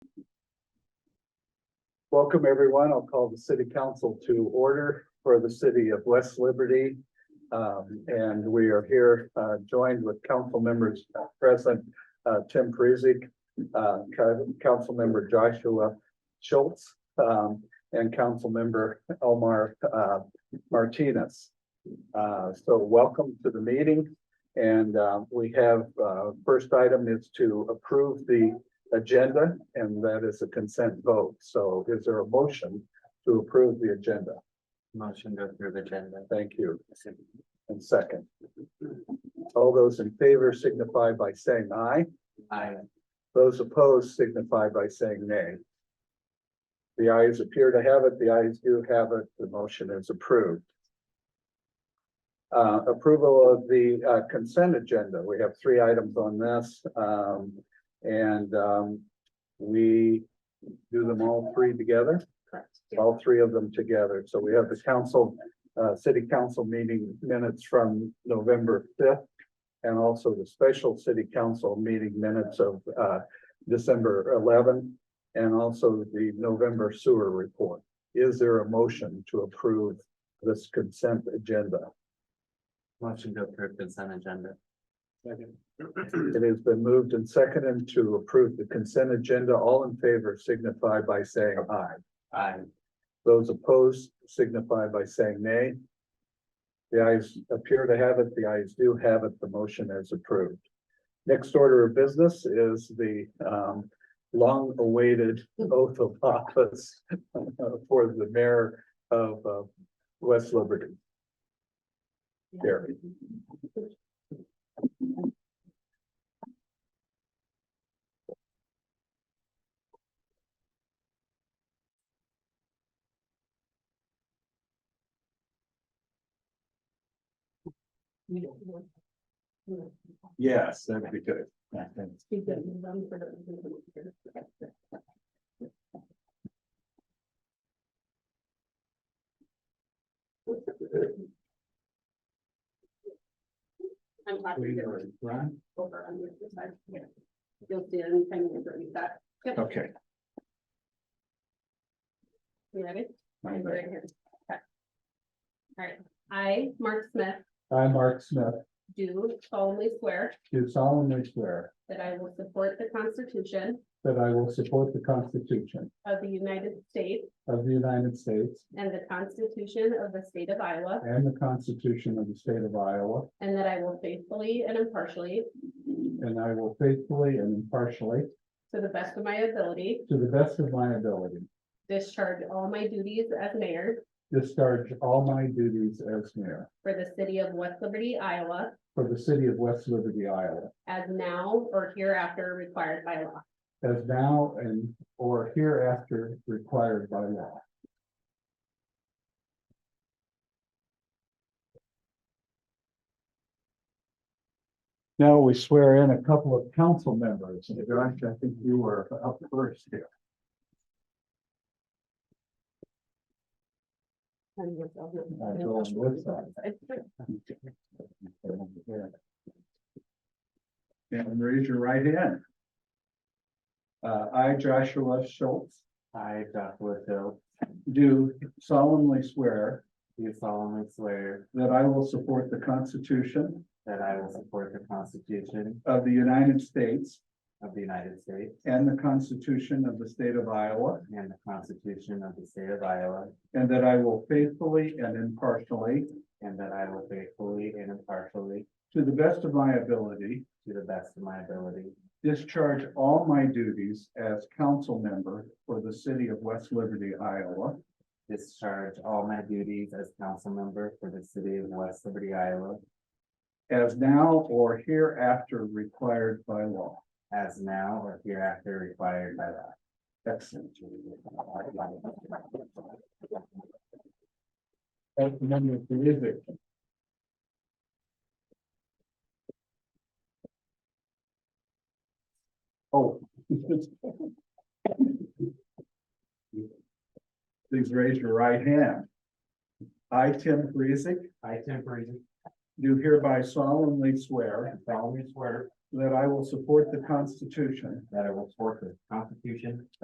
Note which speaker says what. Speaker 1: Welcome, everyone. I'll call the city council to order for the city of West Liberty. Um, and we are here, uh, joined with council members present, uh, Tim Prezek, uh, co- council member Joshua Schultz, um, and council member Omar, uh, Martinez. Uh, so welcome to the meeting. And, uh, we have, uh, first item is to approve the agenda, and that is a consent vote. So is there a motion to approve the agenda?
Speaker 2: Motion to approve agenda.
Speaker 1: Thank you. And second. All those in favor signify by saying aye.
Speaker 2: Aye.
Speaker 1: Those opposed signify by saying nay. The ayes appear to have it, the ayes do have it, the motion is approved. Uh, approval of the uh, consent agenda, we have three items on this, um, and, um, we do them all three together,
Speaker 2: Correct.
Speaker 1: all three of them together, so we have the council, uh, city council meeting minutes from November fifth, and also the special city council meeting minutes of, uh, December eleven, and also the November sewer report. Is there a motion to approve this consent agenda?
Speaker 2: Motion to approve consent agenda.
Speaker 1: It has been moved and seconded to approve the consent agenda. All in favor signify by saying aye.
Speaker 2: Aye.
Speaker 1: Those opposed signify by saying nay. The ayes appear to have it, the ayes do have it, the motion is approved. Next order of business is the um long-awaited oath of office for the mayor of uh, West Liberty. Gary. Yes, that'd be good.
Speaker 3: I'm happy to go over on the other side. Yeah. You'll see it anytime you ever need that.
Speaker 1: Okay.
Speaker 3: You ready?
Speaker 1: I'm
Speaker 3: I'm
Speaker 1: ready.
Speaker 3: right here. Okay. All right, I, Mark Smith,
Speaker 1: I, Mark Smith,
Speaker 3: do solemnly swear
Speaker 1: do solemnly swear
Speaker 3: that I will support the Constitution
Speaker 1: that I will support the Constitution
Speaker 3: of the United States
Speaker 1: of the United States
Speaker 3: and the Constitution of the State of Iowa,
Speaker 1: and the Constitution of the State of Iowa,
Speaker 3: and that I will faithfully and impartially,
Speaker 1: and I will faithfully and impartially,
Speaker 3: to the best of my ability,
Speaker 1: to the best of my ability,
Speaker 3: discharge all my duties as mayor
Speaker 1: discharge all my duties as mayor
Speaker 3: for the city of West Liberty, Iowa,
Speaker 1: for the city of West Liberty, Iowa,
Speaker 3: as now or hereafter required by law.
Speaker 1: as now and or hereafter required by law. Now we swear in a couple of council members. And Josh, I think you were up first here. I'll go on with that. And raise your right hand. Uh, I, Joshua Schultz,
Speaker 2: I, Joshua Hill,
Speaker 1: do solemnly swear
Speaker 2: do solemnly swear
Speaker 1: that I will support the Constitution
Speaker 2: that I will support the Constitution
Speaker 1: of the United States
Speaker 2: of the United States
Speaker 1: and the Constitution of the State of Iowa,
Speaker 2: and the Constitution of the State of Iowa,
Speaker 1: and that I will faithfully and impartially,
Speaker 2: and that I will faithfully and impartially,
Speaker 1: to the best of my ability,
Speaker 2: to the best of my ability,
Speaker 1: discharge all my duties as council member for the city of West Liberty, Iowa,
Speaker 2: discharge all my duties as council member for the city of West Liberty, Iowa,
Speaker 1: as now or hereafter required by law.
Speaker 2: as now or hereafter required by law.
Speaker 1: Excellent. Councilmember Prizek. Oh. Please raise your right hand. I, Tim Prizek,
Speaker 2: I, Tim Parisi,
Speaker 1: do hereby solemnly swear
Speaker 2: solemnly swear
Speaker 1: that I will support the Constitution
Speaker 2: that I will support the Constitution